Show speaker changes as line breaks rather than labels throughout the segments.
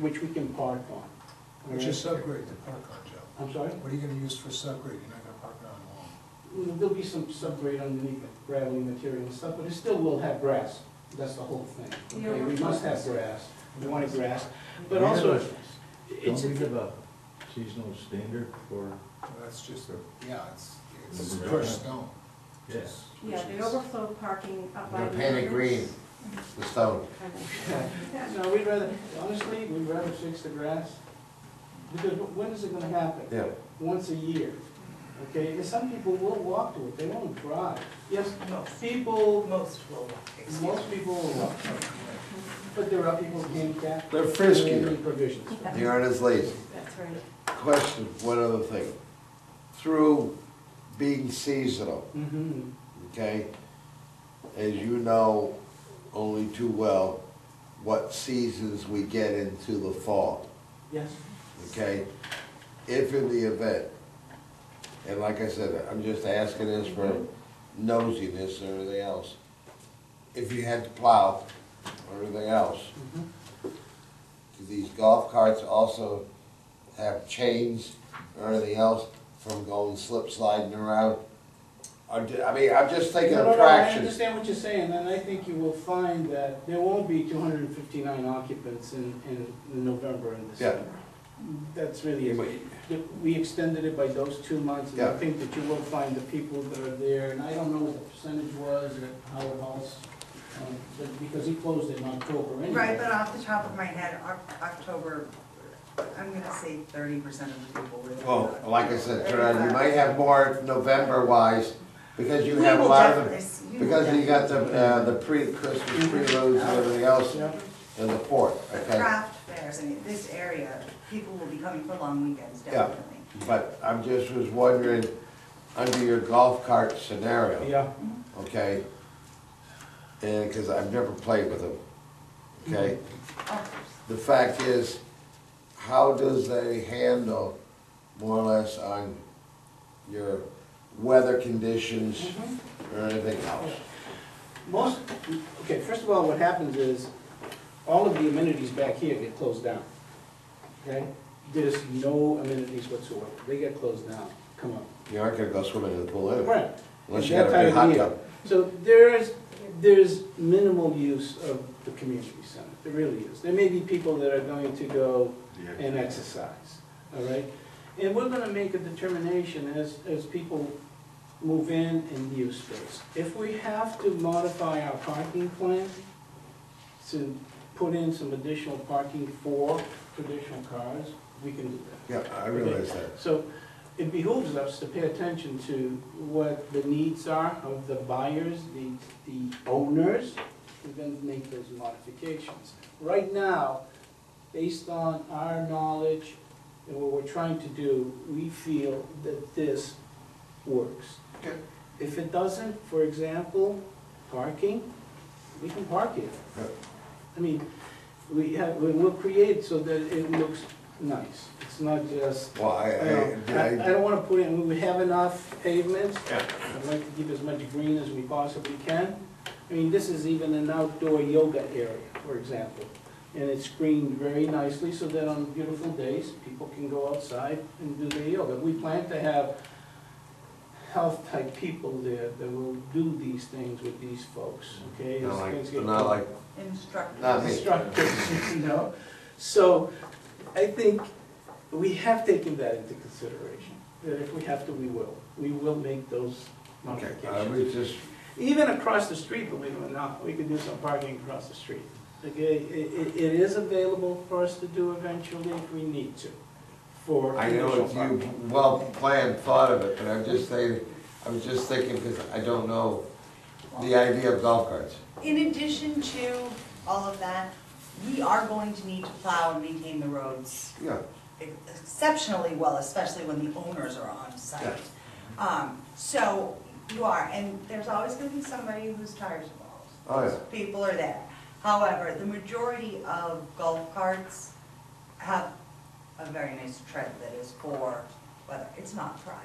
which we can park on. all
Which is
right?
subgrade to park on, Joe.
I'm sorry?
What are you gonna use for subgrade? You're not gonna park it on lawn.
Mm, There'll be some subgrade underneath it, gravelly material and stuff, but it still will have grass. That's the whole thing.
Yeah,
Okay, we
we're-
must have grass. We want it grass, but
We have
also,
a-
it's,
Don't we
a-
give a seasonal standard for,
Well, That's just, a yeah, it's, it's
Mhm.
crushed stone.
yes,
Yeah, the overflow parking up by.
You're
the
painted
others.
green, the stone.
no, we'd rather, honestly, we'd rather fix the grass. Because wh- when is it gonna happen?
Yeah.
once a year, okay? And some people will walk to it, they won't drive. Yes, people,
Most will, excuse
most people will walk, but there are people handicapped.
They're
and
friskier.
Provisions.
They aren't as lazy.
That's right.
Question, one other thing. Through being seasonal,
Mm-hmm,
okay? As you know only too well, what seasons we get into the fall,
yes,
okay? If in the event, and like I said, I'm just asking this for Mm-hmm. nosiness and everything else. If you had to plow or everything else,
mhm.
Do these golf carts also have chains or anything else from going slip sliding around? Or do- I mean, I'm just thinking
No, no,
of
no, I
traction.
understand what you're saying, and I think you will find that there won't be two hundred and fifty-nine occupants in, in November and December. That's really it. That We extended it by those two months, and I
Yeah.
think that you will find the people that are there, and I don't know what the percentage was at Howard House, um, but- because he closed in October anyway.
Right, but off the top of my head, Oc- October, I'm gonna say thirty percent of the people were there.
Well, Oh, like I said, Gerard, you might have more November wise because you have a lot of, the- because you got the, uh, the pre-Christmas preloads and everything else
Yeah.
in the fourth,
The
okay?
craft fairs, I mean, this area, people will be coming for long weekends,
Yeah.
definitely.
But I'm just was wondering, under your golf cart scenario.
Yeah,
okay? And, because I've never played with them, okay?
Mm-hmm.
Oh,
The fact is, how does they handle more or less on your weather conditions
Mhm.
or anything else?
most, okay, first of all, what happens is, all of the amenities back here get closed down, okay? There's no amenities whatsoever, they get closed down, come on.
You aren't gonna go swimming in the pool anyway,
Right.
unless
At
you
that
got a
time
big
of
hot
the
tub.
year. So there is, there's minimal use of the community center, there really is. There may be people that are going to go and exercise, all right? And we're gonna make a determination as, as people move in and use space. If we have to modify our parking plan to put in some additional parking for traditional cars, we can do that.
Yeah, I realize that.
So it behooves us to pay attention to what the needs are of the buyers, the, the owners, and then make those modifications. Right now, based on our knowledge and what we're trying to do, we feel that this works.
Good.
If it doesn't, for example, parking, we can park it.
Right.
I mean, we have, we will create so that it looks nice. It's not just
Well, I,
I,
I-
I
I,
don't wanna put in, we have enough pavements.
Yeah.
I'd like to keep as much green as we possibly can. I mean, this is even an outdoor yoga area, for example. And it's screened very nicely so that on beautiful days, people can go outside and do their yoga. We plan to have health-type people there that will do these things with these folks, okay? as
not
things
like,
get
not like,
Instructors.
Not me.
constructive, you know? So I think we have taken that into consideration, that if we have to, we will. We will make those
okay, I was
modifications.
just,
Even across the street, believe it or not, we could do some parking across the street. Okay, it, it, it is available for us to do eventually if we need to, for
I know
commercial
it's
parking.
you, well planned, thought of it, but I'm just saying, I was just thinking, because I don't know the idea of golf carts.
In addition to all of that, we are going to need to plow and maintain the roads
Yeah,
exceptionally well, especially when the owners are on site. Um, so you are, and there's always gonna be somebody who's tires involved.
Oh, yeah.
People are there. However, the majority of golf carts have a very nice tread that is for weather. It's not prize.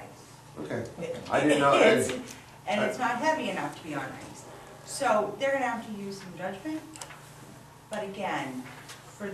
okay.
It-
I didn't
it
know-
is, And it's not heavy enough to be on ice. So they're gonna have to use some judgment. But again,